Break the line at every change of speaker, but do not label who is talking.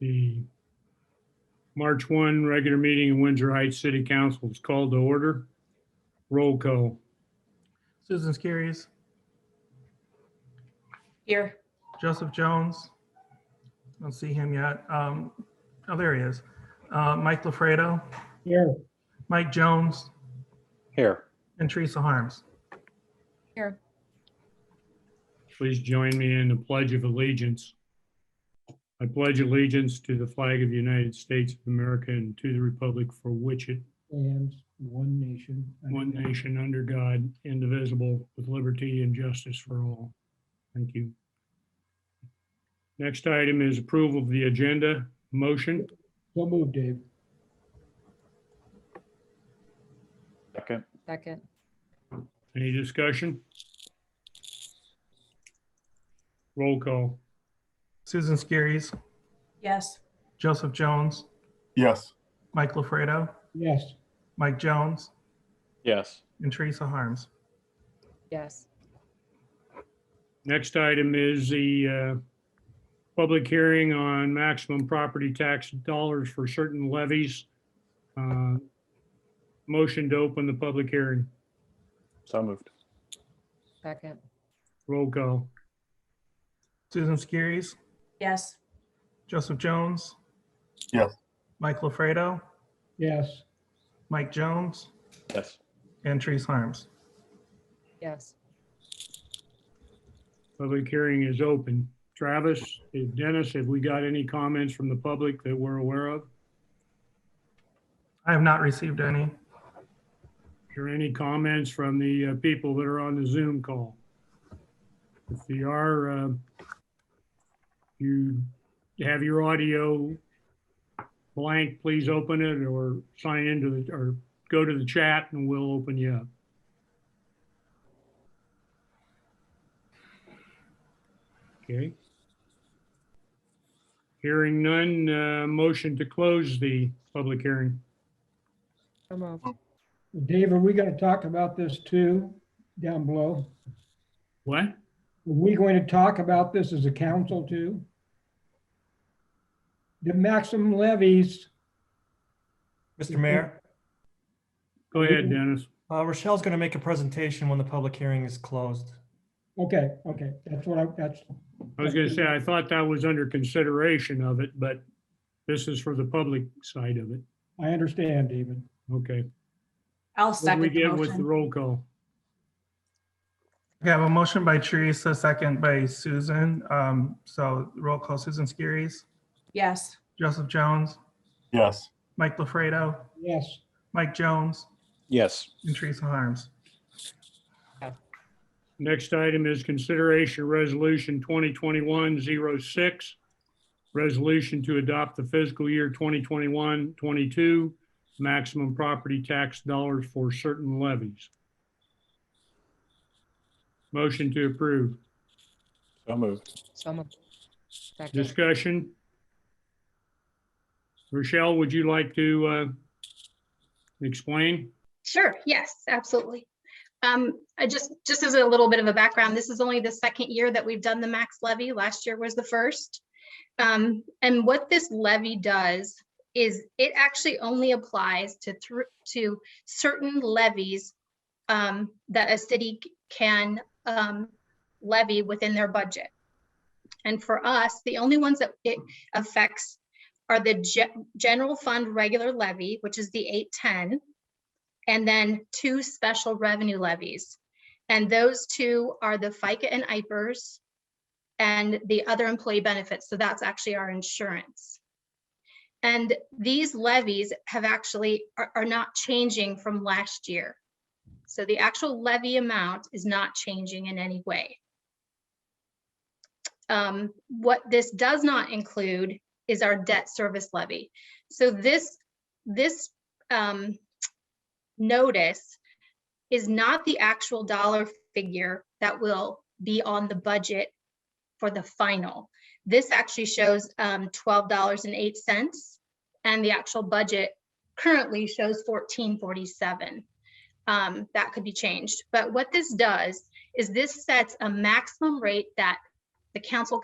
The March 1 regular meeting in Windsor Heights City Council is called to order. Roll call.
Susan Skiris,
Here.
Joseph Jones. Don't see him yet. Um, oh, there he is. Uh, Mike LaFredo,
Here.
Mike Jones,
Here,
and Teresa Harms.
Here.
Please join me in the Pledge of Allegiance. I pledge allegiance to the flag of the United States of America and to the republic for which it,
And one nation. under
one
God,
nation under God, indivisible, with liberty and justice for all. Thank you. Next item is approval of the agenda. Motion.
So moved, Dave.
second,
Second.
Any discussion? Roll call.
Susan Skiris,
Yes.
Joseph Jones,
Yes,
Mike LaFredo,
Yes,
Mike Jones,
yes,
and Teresa Harms.
Yes.
Next item is the uh, public hearing on maximum property tax dollars for certain levies. Uh, Motion to open the public hearing.
so moved.
Second.
Roll call.
Susan Skiris,
Yes.
Joseph Jones.
Yes.
Mike LaFredo,
yes,
Mike Jones,
Yes,
and Teresa Harms.
Yes.
Public hearing is open. Travis, Dennis, have we got any comments from the public that we're aware of?
I have not received any.
Or any comments from the uh, people that are on the Zoom call? If you are, uh, you have your audio blank, please open it or sign into the, or go to the chat and we'll open you up. Okay. Hearing none, uh, motion to close the public hearing.
So moved.
Dave, are we gonna talk about this too, down below?
What?
Are we going to talk about this as a council too? The maximum levies,
Mr. Mayor,
Go ahead, Dennis.
uh, Rochelle's going to make a presentation when the public hearing is closed.
okay, okay, that's what I, that's,
I was gonna say, I thought that was under consideration of it, but this is for the public side of it.
I understand, David.
Okay.
I'll
What do we
second the
get with the
motion.
roll call?
Okay, I have a motion by Teresa, second by Susan. Um, so roll call Susan Skiris,
Yes,
Joseph Jones,
yes,
Mike LaFredo,
Yes,
Mike Jones,
yes,
and Teresa Harms.
Next item is consideration resolution 2021-06, Resolution to adopt the fiscal year 2021-22 maximum property tax dollars for certain levies. Motion to approve.
so moved.
So moved. Second.
Discussion? Rochelle, would you like to uh, explain?
Sure, yes, absolutely. Um, I just, just as a little bit of a background, this is only the second year that we've done the max levy. Last year was the first. Um, and what this levy does is it actually only applies to through, to certain levies um, that a city c- can um, levy within their budget. And for us, the only ones that it affects are the ge- general fund regular levy, which is the 810, and then two special revenue levies. And those two are the FICA and IPERS and the other employee benefits. So that's actually our insurance. And these levies have actually, are, are not changing from last year. So the actual levy amount is not changing in any way. Um, what this does not include is our debt service levy. So this, this, um, notice is not the actual dollar figure that will be on the budget for the final. This actually shows um, $12.08 and the actual budget currently shows $14.47. Um, That could be changed. But what this does is this sets a maximum rate that the council